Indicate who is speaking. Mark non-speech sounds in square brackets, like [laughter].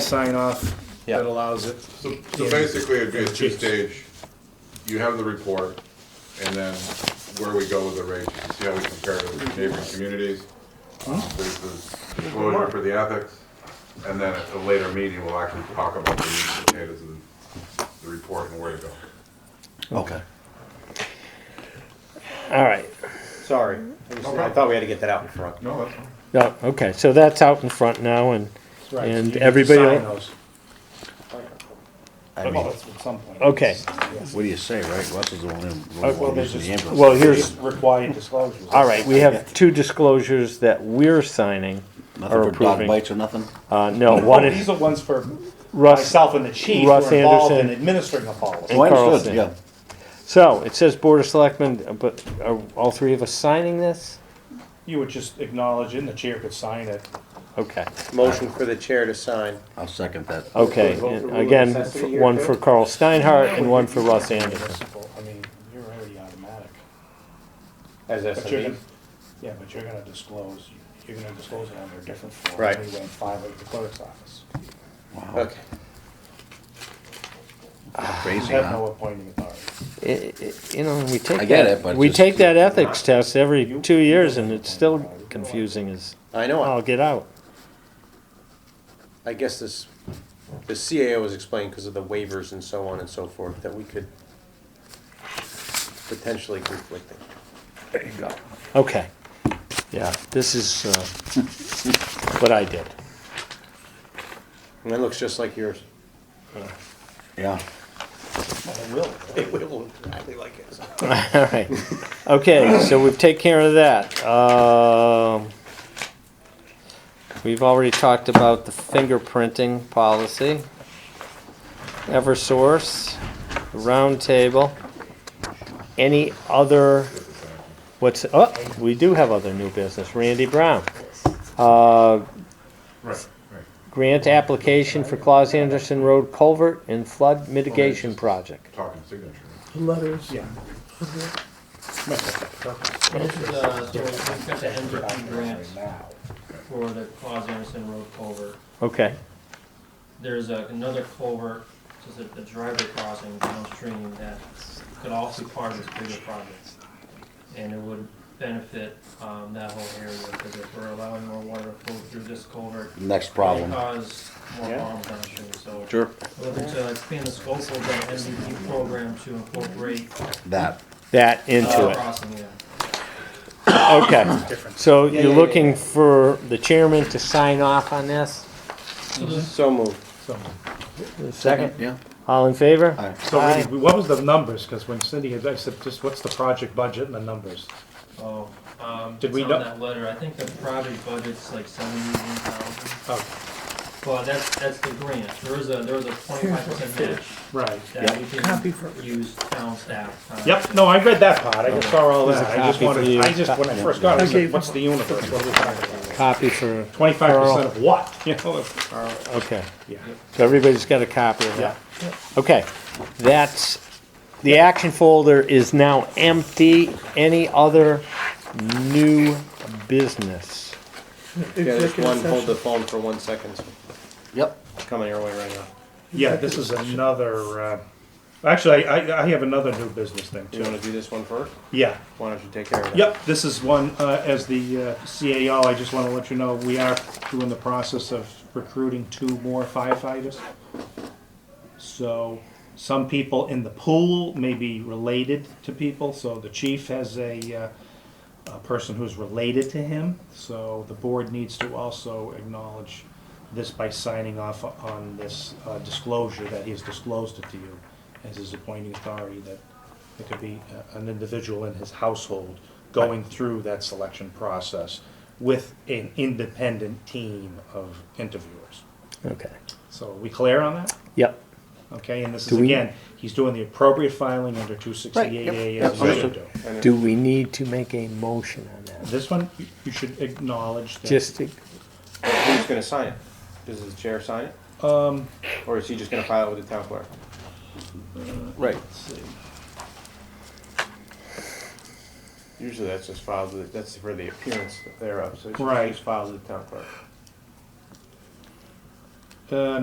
Speaker 1: sign off
Speaker 2: Yeah.
Speaker 1: that allows it.
Speaker 3: So, so basically, it'd be a two-stage, you have the report, and then where we go with the rates, you see how we compare to the neighboring communities. Uh, There's the disclosure for the ethics, and then at a later meeting, we'll actually talk about the meat and potatoes and the report and where to go.
Speaker 2: Okay. All right.
Speaker 4: Sorry, I just- I thought we had to get that out in front.
Speaker 3: No, that's fine.
Speaker 2: No, okay, so that's out in front now and,
Speaker 1: Right, you
Speaker 2: and
Speaker 1: need to
Speaker 2: everybody,
Speaker 1: sign
Speaker 2: el-
Speaker 1: those.
Speaker 5: I mean,
Speaker 1: At some point.
Speaker 2: okay.
Speaker 5: what do you say, right? Russell's the one who
Speaker 2: Uh,
Speaker 5: who's
Speaker 2: well,
Speaker 5: using the ambulance.
Speaker 2: Well, here's,
Speaker 4: Required disclosures.
Speaker 2: all right, we have two disclosures that we're signing
Speaker 5: Nothing
Speaker 2: or
Speaker 5: for dog
Speaker 2: approving.
Speaker 5: bites or nothing?
Speaker 4: Oh,
Speaker 2: Uh, no,
Speaker 4: Well,
Speaker 2: one
Speaker 4: these
Speaker 1: [laughs]
Speaker 2: is
Speaker 4: are ones for
Speaker 2: Russ.
Speaker 4: myself and the chief who
Speaker 2: Russ
Speaker 4: are involved in
Speaker 2: Anderson.
Speaker 4: administering the policy.
Speaker 5: Oh, I
Speaker 2: Carlson.
Speaker 5: understood, yeah.
Speaker 2: So it says Board of Selectmen, but are all three of us signing this?
Speaker 4: You would just acknowledge it and the chair could sign it.
Speaker 2: Okay,
Speaker 6: Motion for the chair to sign.
Speaker 5: I'll second that.
Speaker 4: [laughs]
Speaker 2: okay.
Speaker 4: Vote for
Speaker 2: and
Speaker 4: rule of
Speaker 2: Again,
Speaker 4: necessity
Speaker 2: f-
Speaker 4: here,
Speaker 2: one
Speaker 4: too?
Speaker 2: for Carl Steinhardt and one for Russ Anderson.
Speaker 4: I mean, you're already automatic.
Speaker 6: As
Speaker 4: But
Speaker 6: E.
Speaker 4: you're
Speaker 6: S&P.
Speaker 4: gonna, yeah, but you're gonna disclose, you're gonna disclose it under a different form.
Speaker 6: Right.
Speaker 4: Anyway, and file it at the clerk's office.
Speaker 6: Okay.
Speaker 4: You
Speaker 5: Crazy,
Speaker 4: have no
Speaker 5: huh?
Speaker 4: appointing authority.
Speaker 2: I- I- You know, we take
Speaker 5: I get
Speaker 2: that-
Speaker 5: it, but
Speaker 2: We
Speaker 5: just-
Speaker 2: take that ethics test every two years and it's still confusing as
Speaker 6: I know,
Speaker 2: all
Speaker 6: it.
Speaker 2: get out.
Speaker 6: I guess this, the CAO was explained because of the waivers and so on and so forth, that we could potentially conflicting.
Speaker 2: Okay, yeah, this is uh, what I did. [laughs]
Speaker 6: And it looks just like yours.
Speaker 5: Yeah.
Speaker 6: [laughs] It will look exactly like yours.
Speaker 2: All right, okay, so we've taken care of that. Um, We've already talked about the fingerprinting policy. Eversource, roundtable. Any other, what's, oh, we do have other new business, Randy Brown. Uh,
Speaker 3: Right, right.
Speaker 2: Grant application for Claus Anderson Road culvert and flood mitigation project.
Speaker 3: Talking signature.
Speaker 7: Letters.
Speaker 4: Yeah.
Speaker 7: This is, uh, so we've got the Hendrickson grant
Speaker 4: Now.
Speaker 7: for the Claus Anderson Road culvert.
Speaker 2: Okay,
Speaker 7: There's a- another culvert, just a a driveway crossing downstream that could also be part of this bigger project. And it would benefit, um, that whole area, because if we're allowing more water to flow through this culvert,
Speaker 5: Next
Speaker 7: it
Speaker 5: problem.
Speaker 7: cause more
Speaker 4: Yeah.
Speaker 7: harm downstream, so.
Speaker 5: Sure.
Speaker 7: we're Looking to expand the scope of the MVP program to incorporate
Speaker 5: That.
Speaker 2: that into
Speaker 7: uh,
Speaker 2: it.
Speaker 7: crossing, yeah.
Speaker 2: Okay, so you're looking for the chairman to sign off on this?
Speaker 6: So moved.
Speaker 2: Second?
Speaker 5: Yeah.
Speaker 2: All in favor?
Speaker 5: Aye.
Speaker 1: So really, what was the numbers? Because when Cindy had, I said, just what's the project budget and the numbers?
Speaker 7: Oh, um,
Speaker 1: Did
Speaker 7: it's
Speaker 1: we
Speaker 7: on
Speaker 1: know-
Speaker 7: that letter, I think the project budget's like seventy-one thousand,
Speaker 1: Oh,
Speaker 7: but that's, that's the grant, there is a, there is a twenty-five percent match
Speaker 1: right.
Speaker 7: that we can use town staff. uh, time.
Speaker 1: Yep, no, I read that part, I just saw all
Speaker 2: There's
Speaker 1: that,
Speaker 2: a
Speaker 1: I just
Speaker 2: copy for
Speaker 1: wanted,
Speaker 2: you.
Speaker 1: I just, when I first got it, I said, what's the universe, what are we talking about?
Speaker 2: Copy for,
Speaker 1: Twenty-five percent of what, [laughs] you know?
Speaker 2: okay.
Speaker 1: Yeah.
Speaker 2: So everybody's got a copy of
Speaker 1: Yeah.
Speaker 2: that. Okay, that's, the action folder is now empty. Any other new business?
Speaker 6: Yeah, there's
Speaker 7: Executive
Speaker 6: one, hold the phone for one second,
Speaker 5: Yep.
Speaker 6: it's coming your way right now.
Speaker 1: Yeah, this is another, uh, actually, I, I have another new business thing
Speaker 6: Do you wanna
Speaker 1: too.
Speaker 6: do this one first?
Speaker 1: Yeah,
Speaker 6: Why don't you take care of that?
Speaker 1: Yep, this is one, uh, as the uh, CAO, I just want to let you know, we are doing the process of recruiting two more firefighters. So some people in the pool may be related to people, so the chief has a, uh, a person who's related to him. So the board needs to also acknowledge this by signing off on this uh, disclosure that he has disclosed it to you as his appointing authority that it could be uh, an individual in his household going through that selection process with an independent team of interviewers.
Speaker 2: Okay,
Speaker 1: So are we clear on that?
Speaker 2: yep.
Speaker 1: Okay, and this is
Speaker 2: Do we-
Speaker 1: again, he's doing the appropriate filing under two sixty-eight A as he should do.
Speaker 2: Do we need to make a motion on that?
Speaker 1: This one, you- you should acknowledge that.
Speaker 2: Just, to-
Speaker 6: Who's gonna sign it? Does the chair sign it? Um. Or is he just gonna file it with the town clerk?
Speaker 5: Right.
Speaker 6: Usually that's just filed with, that's for the appearance thereof, so it's
Speaker 1: Right.
Speaker 6: just filed with the town clerk.
Speaker 1: Uh,